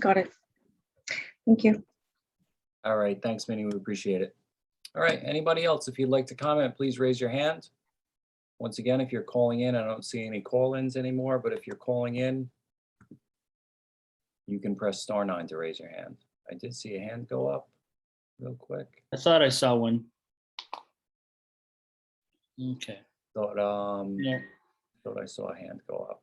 got it. Thank you. All right, thanks, Minnie. We appreciate it. All right, anybody else? If you'd like to comment, please raise your hand. Once again, if you're calling in, I don't see any call-ins anymore, but if you're calling in, you can press star nine to raise your hand. I did see a hand go up real quick. I thought I saw one. Okay, Thought, um, yeah, thought I saw a hand go up.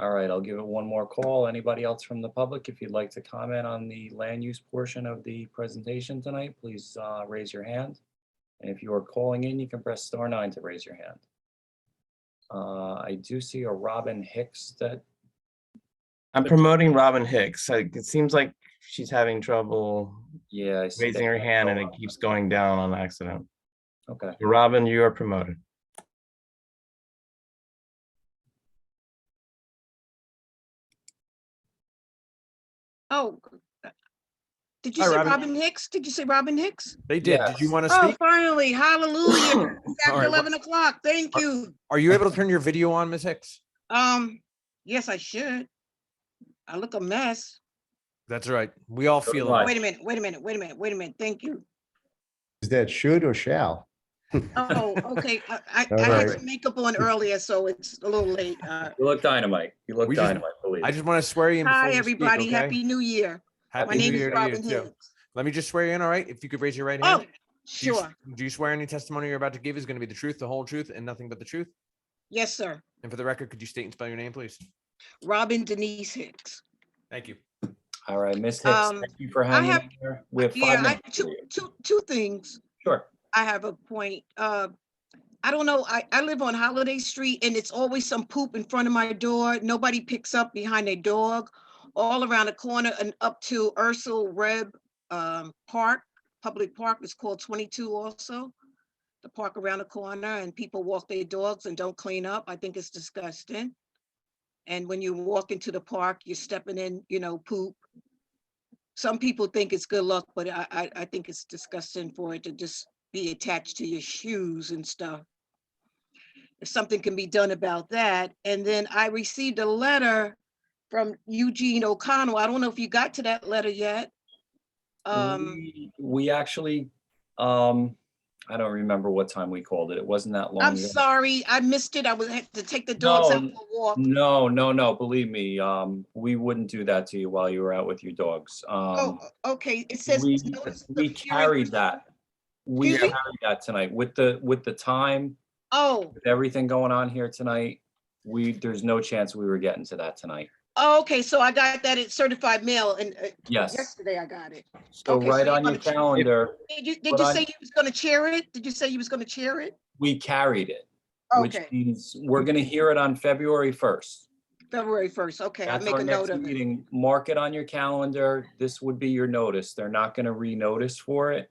All right, I'll give it one more call. Anybody else from the public, if you'd like to comment on the land use portion of the presentation tonight, please uh, raise your hand. And if you are calling in, you can press star nine to raise your hand. Uh, I do see a Robin Hicks that, I'm promoting Robin Hicks. Like, It seems like she's having trouble yeah. I see raising that her hand and it go up. keeps going down on accident. Okay, Robin, you are promoted. Oh. uh, Did you Hi, say Robin. Robin Hicks? Did you say Robin Hicks? They did. Did you Yes. want to Oh, speak? finally, hallelujah. It's All After right, well- eleven o'clock, thank Are- you. Are you able to turn your video on, Ms. Hicks? Um, yes, I should. I look a mess. That's right. We all So feel do I. it. Wait a minute, wait a minute, wait a minute, wait a minute, thank you. Is that should or shall? Oh, okay, I, I- All I had right. some makeup on earlier, so it's a little late. Uh, you look dynamite. You look We just- dynamite, believe I it. just want to swear you in. before Hi, you speak, everybody, okay? happy new year. Happy My New name Year is to you, Robin too. Hicks. Let me just swear you in, all right? If you could raise your right Oh, hand. Do you s- sure, Do you swear any testimony you're about to give is going to be the truth, the whole truth, and nothing but the truth? yes, sir. And for the record, could you state and spell your name, please? Robin Denise Hicks. Thank you. All right, Miss Hicks, Um, thank you for I hanging have- in there. We have Yeah, five I, minutes. for two, you. two, two things. Sure. I have a point. Uh, I don't know, I, I live on Holiday Street and it's always some poop in front of my door. Nobody picks up behind their dog. All around the corner and up to Ursel Reb um, Park, Public Park is called 22 also. The park around the corner and people walk their dogs and don't clean up. I think it's disgusting. And when you walk into the park, you're stepping in, you know, poop some people think it's good luck, but I, I, I think it's disgusting for it to just be attached to your shoes and stuff. If something can be done about that. And then I received a letter from Eugene O'Connell. I don't know if you got to that letter yet. Um, We- We actually, um, I don't remember what time we called it. It wasn't that long. I'm ago. sorry, I missed it. I was had to take the dogs out No, for a walk. No, no, no, believe me, um, we wouldn't do that to you while you were out with your dogs. Um, Oh, okay, it says. we, notice the we hearing- carried that. We Excuse carried me? that tonight with the, with the time, Oh, with everything going on here tonight. We, there's no chance we were getting to that tonight. oh, okay, so I got that at certified mail and uh, Yes, yesterday I got it. so okay, so right you on your wanna check- calendar, Did you, did But you I- say you was gonna chair it? Did you say you was gonna chair it? we carried it, which Okay, means we're gonna hear it on February first. February first, okay, I'll That's make our a note next of it. meeting. Mark it on your calendar. This would be your notice. They're not gonna re-notice for it.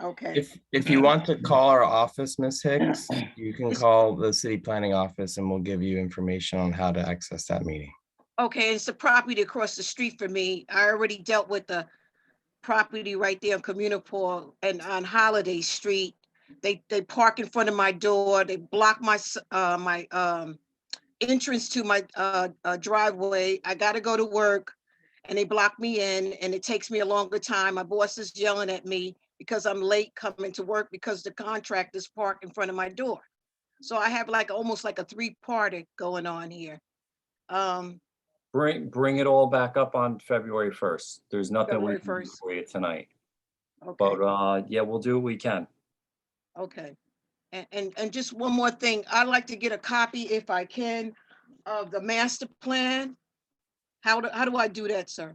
Okay, If, if you want to call our office, Miss Hicks, you can call the city planning office and we'll give you information on how to access that meeting. okay, it's the property across the street for me. I already dealt with the property right there on Communipaw and on Holiday Street. They, they park in front of my door, they block my, s- uh, my, um, entrance to my, uh, uh, driveway. I gotta go to work. And they block me in and it takes me a longer time. My boss is yelling at me because I'm late coming to work because the contractors park in front of my door. So I have like, almost like a three-party going on here. Um, Bring, bring it all back up on February first. There's nothing we February can do 1st. for you tonight. But, okay. uh, yeah, we'll do what we can. Okay, and, and, and just one more thing, I'd like to get a copy if I can of the master plan. How do, how do I do that, sir?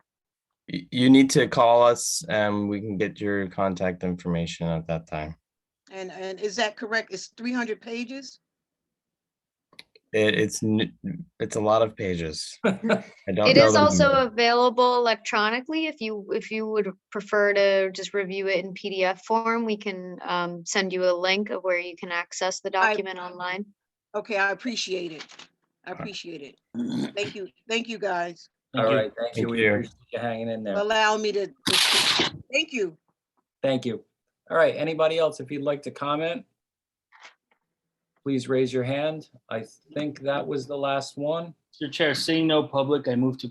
You, you need to call us and we can get your contact information at that time. And, and is that correct? It's three hundred pages? It, it's, n- it's a lot of pages. I don't It know is the also number. available electronically. If you, if you would prefer to just review it in PDF form, we can um, send you a link of where you can access the I- document online. Okay, I appreciate it. I right. appreciate it. Thank you, thank you guys All Thank you. right, thank you. Thank We you. appreciate you hanging in for there. allowing me to, to speak. thank you. Thank you. All right, anybody else, if you'd like to comment? Please raise your hand. I think that was the last one. Mr. Chair, seeing no public, I move to